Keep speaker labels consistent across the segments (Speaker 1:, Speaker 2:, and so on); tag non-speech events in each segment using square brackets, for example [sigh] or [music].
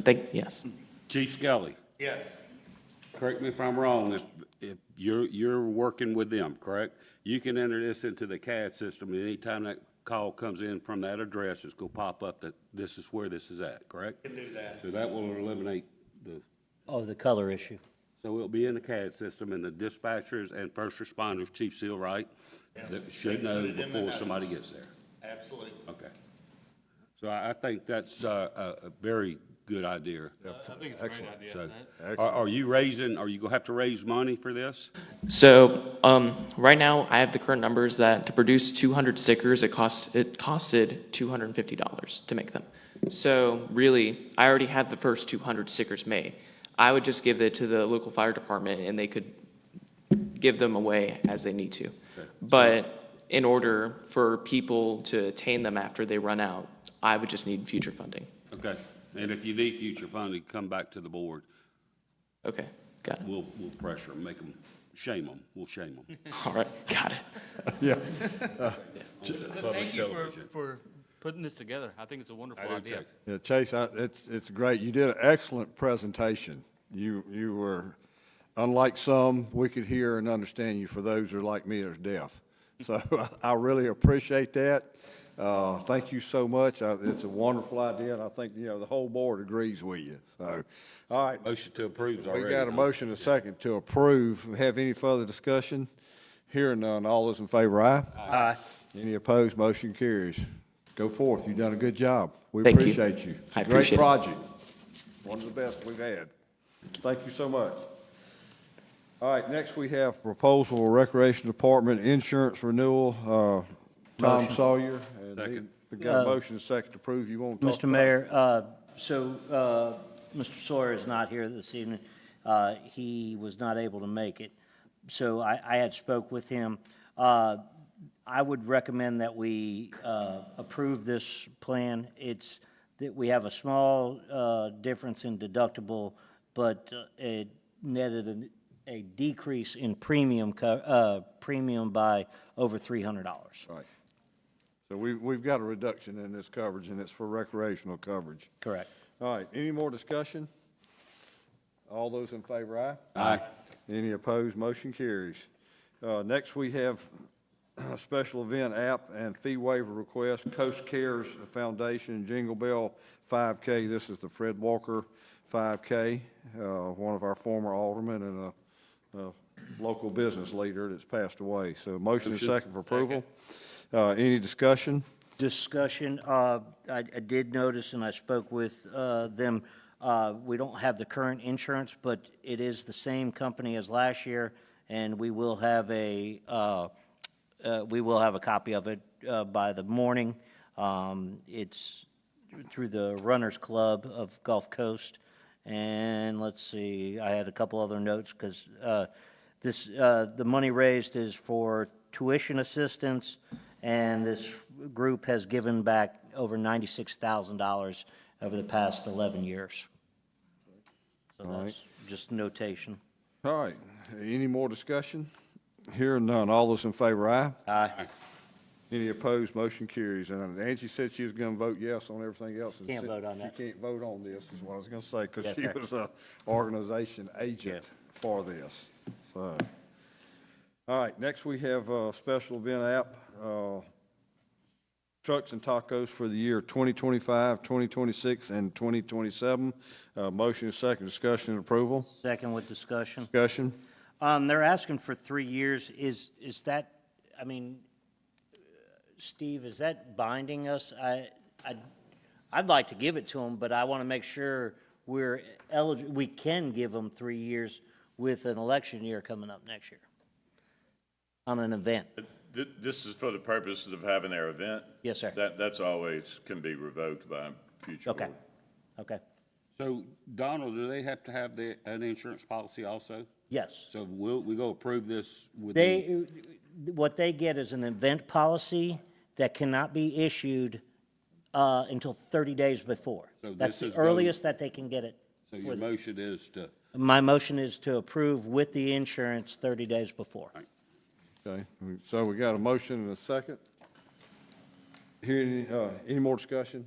Speaker 1: Thank, yes.
Speaker 2: Chief Skelly,
Speaker 3: Yes.
Speaker 2: correct me if I'm wrong, if, if you're, you're working with them, correct? You can enter this into the CAD system, and anytime that call comes in from that address, it's gonna pop up that this is where this is at, correct? Can do that. So that will eliminate the,
Speaker 4: Oh, the color issue.
Speaker 2: so it'll be in the CAD system, and the dispatchers and first responders, Chief Seal, right? That should know
Speaker 3: in the
Speaker 2: before somebody gets there.
Speaker 3: Absolutely.
Speaker 2: Okay. So I, I think that's, uh, a, a very good idea.
Speaker 5: I think it's a great idea.
Speaker 2: So, are, are you raising, are you gonna have to raise money for this?
Speaker 1: So um, right now, I have the current numbers that to produce 200 stickers, it cost it costed $250 to make them. So really, I already had the first 200 stickers made. I would just give it to the local fire department, and they could give them away as they need to. But in order for people to attain them after they run out, I would just need future funding.
Speaker 2: Okay, and if you need future funding, come back to the board.
Speaker 1: Okay, got it.
Speaker 2: We'll, we'll pressure them, make them, shame them, we'll shame
Speaker 5: [laughs]
Speaker 2: them.
Speaker 1: All right, got it.
Speaker 5: But thank you for, for putting this together. I think it's a wonderful idea.
Speaker 6: Yeah, Chase, I, it's, it's great. You did an excellent presentation. You, you were, unlike some, we could hear and understand you for those who are like me that are deaf. So [laughs] I really appreciate that. Uh, thank you so much. I- It's a wonderful idea, and I think, you know, the whole board agrees with you. So, all right.
Speaker 2: Motion to approve's
Speaker 6: We
Speaker 2: already.
Speaker 6: got a motion and a second to approve. Have any further discussion? Hearing none, all those in favor, aye? Aye. Any opposed, motion carries. Go forth, you've done a good job. We
Speaker 1: Thank you.
Speaker 6: appreciate you. It's a
Speaker 1: I appreciate it.
Speaker 6: Great project, one of the best we've had. Thank you so much. All right, next we have proposal Recreation Department Insurance Renewal, uh, Tom Sawyer. and he-
Speaker 2: Second.
Speaker 6: We got a motion and a second to approve, you want to talk
Speaker 4: Mr. Mayor, uh, so uh, Mr. Sawyer is not here this evening. Uh, He was not able to make it, so I I had spoke with him. Uh, I would recommend that we uh, approve this plan. It's, that we have a small uh, difference in deductible, but uh, it netted an- a decrease in premium, co- uh, premium by over $300.
Speaker 6: Right. So we, we've got a reduction in this coverage, and it's for recreational coverage.
Speaker 4: Correct.
Speaker 6: All right, any more discussion? All those in favor, aye?
Speaker 2: Aye.
Speaker 6: Any opposed, motion carries. Uh, Next, we have a special event app and fee waiver request, Coast Cares Foundation, Jingle Bell 5K. This is the Fred Walker 5K, uh, one of our former aldermen and a a local business leader that's passed away. So motion and second for approval. Uh, Any discussion?
Speaker 4: discussion, uh, I I did notice, and I spoke with uh, them, uh, we don't have the current insurance, but it is the same company as last year, and we will have a, uh, uh, we will have a copy of it uh, by the morning. Um, It's through the Runners Club of Gulf Coast, and let's see, I had a couple other notes, because this, uh, the money raised is for tuition assistance, and this group has given back over $96,000 over the past 11 years. So that's just notation.
Speaker 6: All right, any more discussion? Hearing none, all those in favor, aye?
Speaker 4: Aye.
Speaker 6: Any opposed, motion carries. And Angie said she was going to vote yes on everything else. and
Speaker 4: Can't
Speaker 6: said
Speaker 4: vote on that.
Speaker 6: She can't vote on this, is what I was going to say, because
Speaker 4: Yes,
Speaker 6: she
Speaker 4: sir.
Speaker 6: was a organization agent for this, so. All right, next we have a special event app, uh, Trucks and Tacos for the year 2025, 2026, and 2027. Uh, Motion is second, discussion and approval.
Speaker 4: Second with discussion.
Speaker 6: Discussion?
Speaker 4: Um, They're asking for three years. Is, is that, I mean, Steve, is that binding us? I, I, I'd like to give it to them, but I want to make sure we're eligible, we can give them three years with an election year coming up next year on an event.
Speaker 7: Th- This is for the purposes of having their event?
Speaker 4: Yes, sir.
Speaker 7: That, that's always, can be revoked by future.
Speaker 4: Okay,
Speaker 7: board.
Speaker 4: okay,
Speaker 2: So, Donald, do they have to have the, an insurance policy also?
Speaker 4: yes.
Speaker 2: So we'll, we go approve this with. the-
Speaker 4: They, what they get is an event policy that cannot be issued uh, until 30 days before.
Speaker 2: So
Speaker 4: That's
Speaker 2: this
Speaker 4: the
Speaker 2: is going-
Speaker 4: earliest that they can get it.
Speaker 2: So your motion is to,
Speaker 4: My motion is to approve with the insurance 30 days before.
Speaker 6: Okay, so we got a motion and a second. Here, any, uh, any more discussion?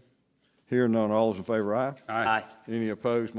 Speaker 6: Hearing none, all those in favor, aye?
Speaker 2: Aye.
Speaker 4: Aye.
Speaker 6: Any opposed,